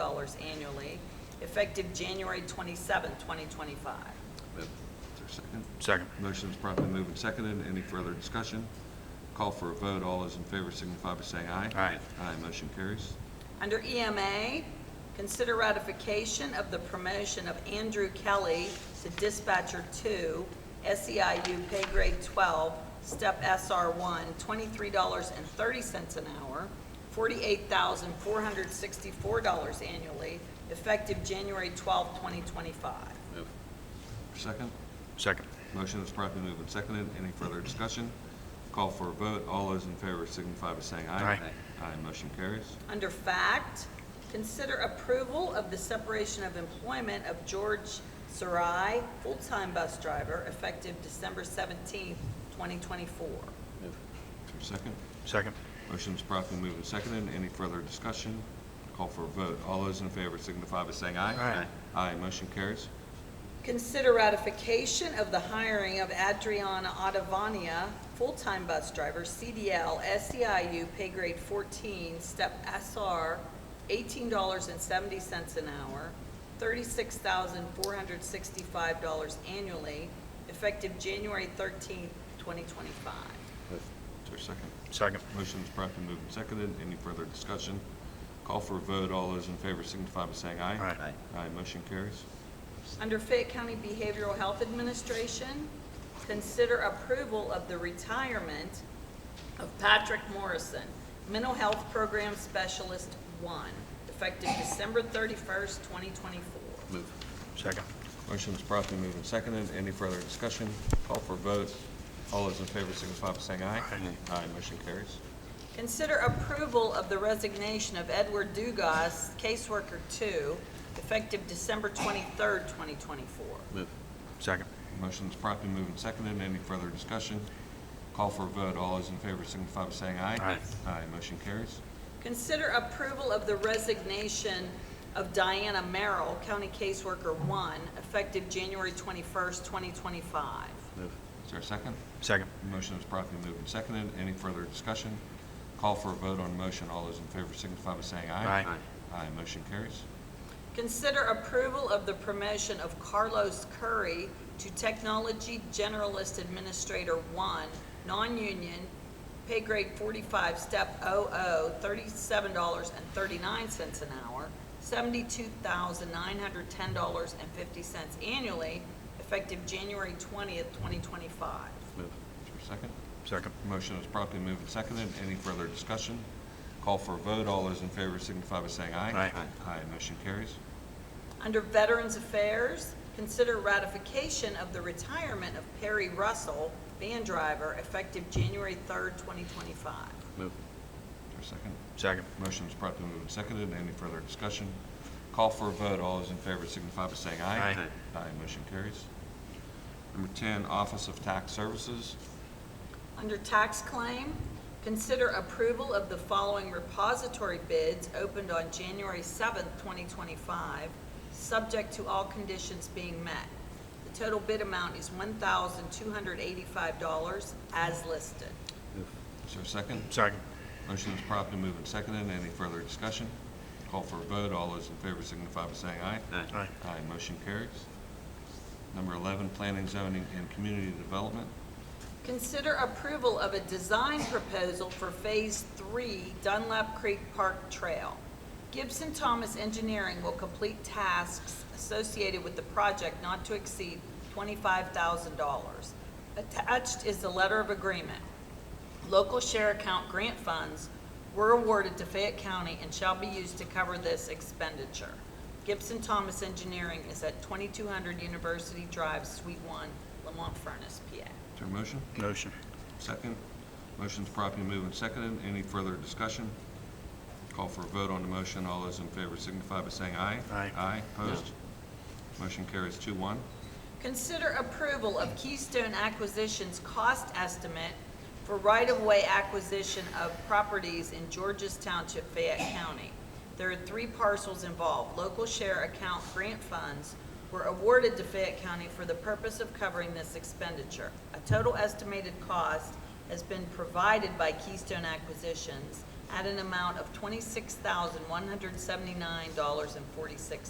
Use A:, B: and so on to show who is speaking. A: dollars annually, effective January 27, 2025.
B: Is there a second?
C: Second.
B: Motion is promptly moved and seconded. Any further discussion? Call for a vote. All those in favor signify by saying aye.
C: Aye.
B: Aye, motion carries.
A: Under EMA, consider ratification of the promotion of Andrew Kelly to dispatcher two, SEIU pay grade 12, step SR1, $23.30 an hour, $48,464 annually, effective January 12, 2025.
B: Second?
C: Second.
B: Motion is promptly moved and seconded. Any further discussion? Call for a vote. All those in favor signify by saying aye.
C: Aye.
B: Aye, motion carries.
A: Under fact, consider approval of the separation of employment of George Sarai, full-time bus driver, effective December 17, 2024.
B: Is there a second?
C: Second.
B: Motion is promptly moved and seconded. Any further discussion? Call for a vote. All those in favor signify by saying aye.
C: Aye.
B: Aye, motion carries.
A: Consider ratification of the hiring of Adriana Ottavania, full-time bus driver, CDL, SEIU, E pay grade 14, step SR, $18.70 an hour, $36,465 annually, effective January 13, 2025.
B: Is there a second?
C: Second.
B: Motion is promptly moved and seconded. Any further discussion? Call for a vote. All those in favor signify by saying aye.
C: Aye.
B: Aye, motion carries.
A: Under Fayette County Behavioral Health Administration, consider approval of the retirement of Patrick Morrison, Mental Health Program Specialist One, effective December thirty-first, twenty twenty-four.
C: Second.
B: Motion is promptly moved and seconded. Any further discussion? Call for a vote. All those in favor signify by saying aye.
C: Aye.
B: Aye, motion carries.
A: Consider approval of the resignation of Edward Dugas, caseworker two, effective December twenty-third, twenty twenty-four.
C: Second.
B: Motion is promptly moved and seconded. Any further discussion? Call for a vote. All those in favor signify by saying aye.
C: Aye.
B: Aye, motion carries.
A: Consider approval of the resignation of Diana Merrill, County Caseworker 1, effective January 21st, 2025.
B: Is there a second?
C: Second.
B: Motion is promptly moved and seconded. Any further discussion? Call for a vote on motion. All those in favor signify by saying aye.
C: Aye.
B: Aye, motion carries.
A: Consider approval of the promotion of Carlos Curry to Technology Generalist Administrator 1, non-union, pay grade 45, step 00, $37.39 an hour, $72,910.50 annually, effective January 20th, 2025.
B: Is there a second?
C: Second.
B: Motion is promptly moved and seconded. Any further discussion? Call for a vote. All those in favor signify by saying aye.
C: Aye.
B: Aye, motion carries.
A: Under Veterans Affairs, consider ratification of the retirement of Perry Russell, van driver, effective January 3rd, 2025.
B: Is there a second?
C: Second.
B: Motion is promptly moved and seconded. Any further discussion? Call for a vote. All those in favor signify by saying aye.
C: Aye.
B: Aye, motion carries. Number 10, Office of Tax Services.
A: Under Tax Claim, consider approval of the following repository bids opened on January 7th, 2025, subject to all conditions being met. The total bid amount is $1,285 as listed.
B: Is there a second?
C: Second.
B: Motion is promptly moved and seconded. Any further discussion? Call for a vote. All those in favor signify by saying aye.
C: Aye.
B: Aye, motion carries. Number 11, Planning, Zoning, and Community Development.
A: Consider approval of a design proposal for Phase 3 Dunlap Creek Park Trail. Gibson Thomas Engineering will complete tasks associated with the project not to exceed $25,000. Attached is the letter of agreement. Local share account grant funds were awarded to Fayette County and shall be used to cover this expenditure. Gibson Thomas Engineering is at 2200 University Drive, Suite 1, Lamont Furnace, PA.
B: Is there a motion?
C: Motion.
B: Second. Motion's promptly moved and seconded. Any further discussion? Call for a vote on the motion. All those in favor signify by saying aye.
C: Aye.
B: Aye, opposed? Motion carries two one.
A: Consider approval of Keystone Acquisition's cost estimate for right-of-way acquisition of properties in Georges Township, Fayette County. There are three parcels involved. Local share account grant funds were awarded to Fayette County for the purpose of covering this expenditure. A total estimated cost has been provided by Keystone Acquisitions at an amount of twenty-six thousand, one hundred seventy-nine dollars and forty-six